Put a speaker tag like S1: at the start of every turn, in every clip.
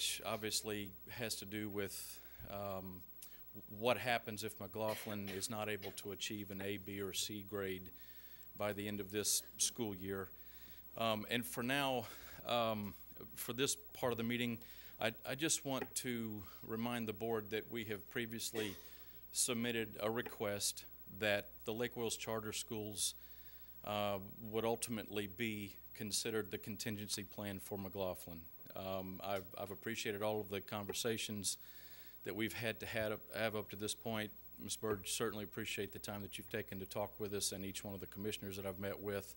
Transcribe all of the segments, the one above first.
S1: which obviously has to do with um, what happens if McLaughlin is not able to achieve an A, B, or C grade by the end of this school year. Um, And for now, um, for this part of the meeting, I I just want to remind the board that we have previously submitted a request that the Lake Wales Charter Schools uh, would ultimately be considered the contingency plan for McLaughlin. Um, I've, I've appreciated all of the conversations that we've had to had, up- have up to this point. Ms. Byrd, certainly appreciate the time that you've taken to talk with us and each one of the commissioners that I've met with.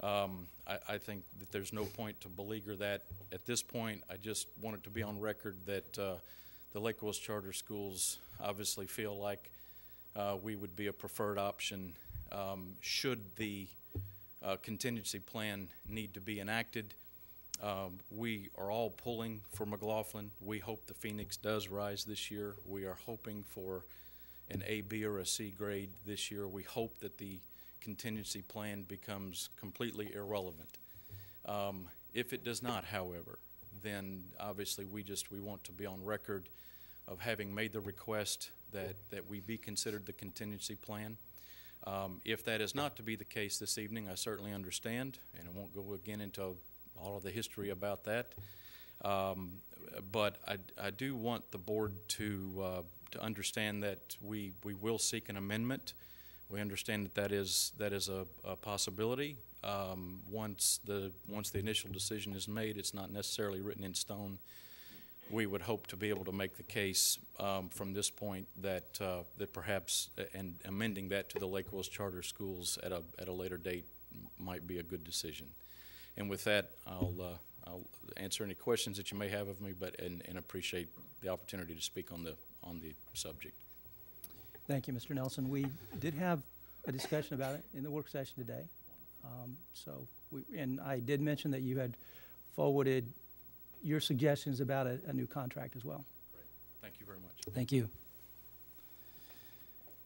S1: Um, I, I think that there's no point to beleaguer that at this point. I just want it to be on record that uh, the Lake Wales Charter Schools obviously feel like uh, we would be a preferred option um, should the uh, contingency plan need to be enacted. Um, We are all pulling for McLaughlin. We hope the Phoenix does rise this year. We are hoping for an A, B, or a C grade this year. We hope that the contingency plan becomes completely irrelevant. Um, If it does not, however, then obviously we just, we want to be on record of having made the request that, that we be considered the contingency plan. Um, If that is not to be the case this evening, I certainly understand, and I won't go again into all of the history about that. Um, But I, I do want the board to, uh, to understand that we, we will seek an amendment. We understand that that is, that is a, a possibility. Um, Once the, once the initial decision is made, it's not necessarily written in stone. We would hope to be able to make the case um, from this point that, uh, that perhaps, and amending that to the Lake Wales Charter Schools at a, at a later date might be a good decision. And with that, I'll, uh, I'll answer any questions that you may have of me, but, and, and appreciate the opportunity to speak on the, on the subject.
S2: Thank you, Mr. Nelson. We did have a discussion about it in the work session today. Um, So, we- and I did mention that you had forwarded your suggestions about a, a new contract as well.
S1: Thank you very much.
S2: Thank you.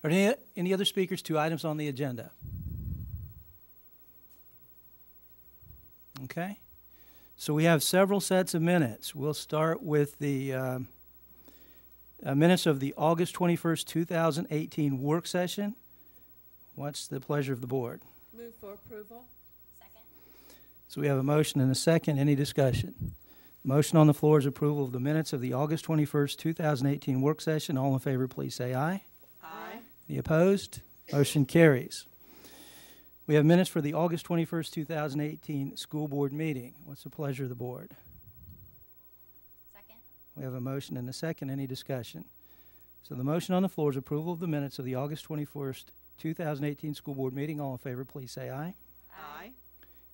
S2: Are there any, any other speakers to items on the agenda? Okay. So we have several sets of minutes. We'll start with the um, uh, minutes of the August 21st, 2018 work session. What's the pleasure of the board?
S3: Move for approval?
S2: So we have a motion and a second. Any discussion? Motion on the floor is approval of the minutes of the August 21st, 2018 work session. All in favor, please say aye.
S3: Aye.
S2: Any opposed? Motion carries. We have minutes for the August 21st, 2018 school board meeting. What's the pleasure of the board?
S4: Second?
S2: We have a motion and a second. Any discussion? So the motion on the floor is approval of the minutes of the August 21st, 2018 school board meeting. All in favor, please say aye.
S3: Aye.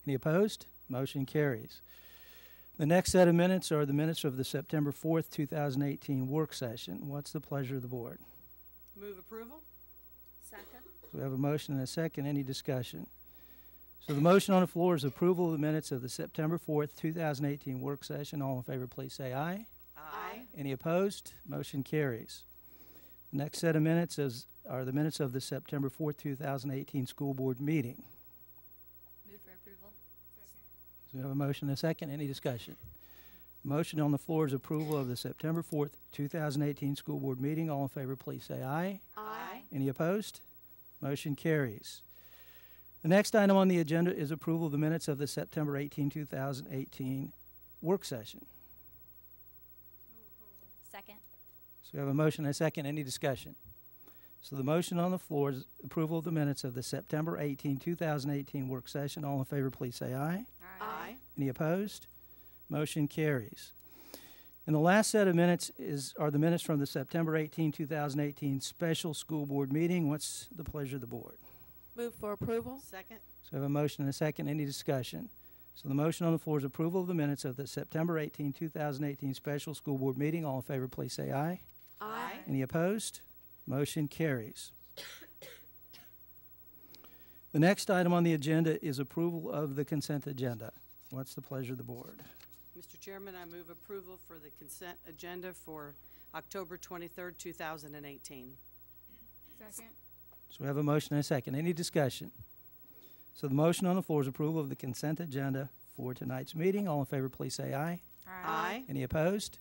S2: Any opposed? Motion carries. The next set of minutes are the minutes of the September 4th, 2018 work session. What's the pleasure of the board?
S3: Move approval?
S4: Second?
S2: So we have a motion and a second. Any discussion? So the motion on the floor is approval of the minutes of the September 4th, 2018 work session. All in favor, please say aye.
S3: Aye.
S2: Any opposed? Motion carries. The next set of minutes is, are the minutes of the September 4th, 2018 school board meeting.
S4: Move for approval? Second.
S2: So we have a motion and a second. Any discussion? Motion on the floor is approval of the September 4th, 2018 school board meeting. All in favor, please say aye.
S3: Aye.
S2: Any opposed? Motion carries. The next item on the agenda is approval of the minutes of the September 18, 2018 work session.
S4: Second?
S2: So we have a motion and a second. Any discussion? So the motion on the floor is approval of the minutes of the September 18, 2018 work session. All in favor, please say aye.
S3: Aye.
S2: Any opposed? Motion carries. And the last set of minutes is, are the minutes from the September 18, 2018 special school board meeting. What's the pleasure of the board?
S3: Move for approval? Second?
S2: So I have a motion and a second. Any discussion? So the motion on the floor is approval of the minutes of the September 18, 2018 special school board meeting. All in favor, please say aye.
S3: Aye.
S2: Any opposed? Motion carries. The next item on the agenda is approval of the consent agenda. What's the pleasure of the board?
S3: Mr. Chairman, I move approval for the consent agenda for October twenty-third, two thousand and eighteen.
S4: Second?
S2: So we have a motion and a second. Any discussion? So the motion on the floor is approval of the consent agenda for tonight's meeting. All in favor, please say aye. Any opposed?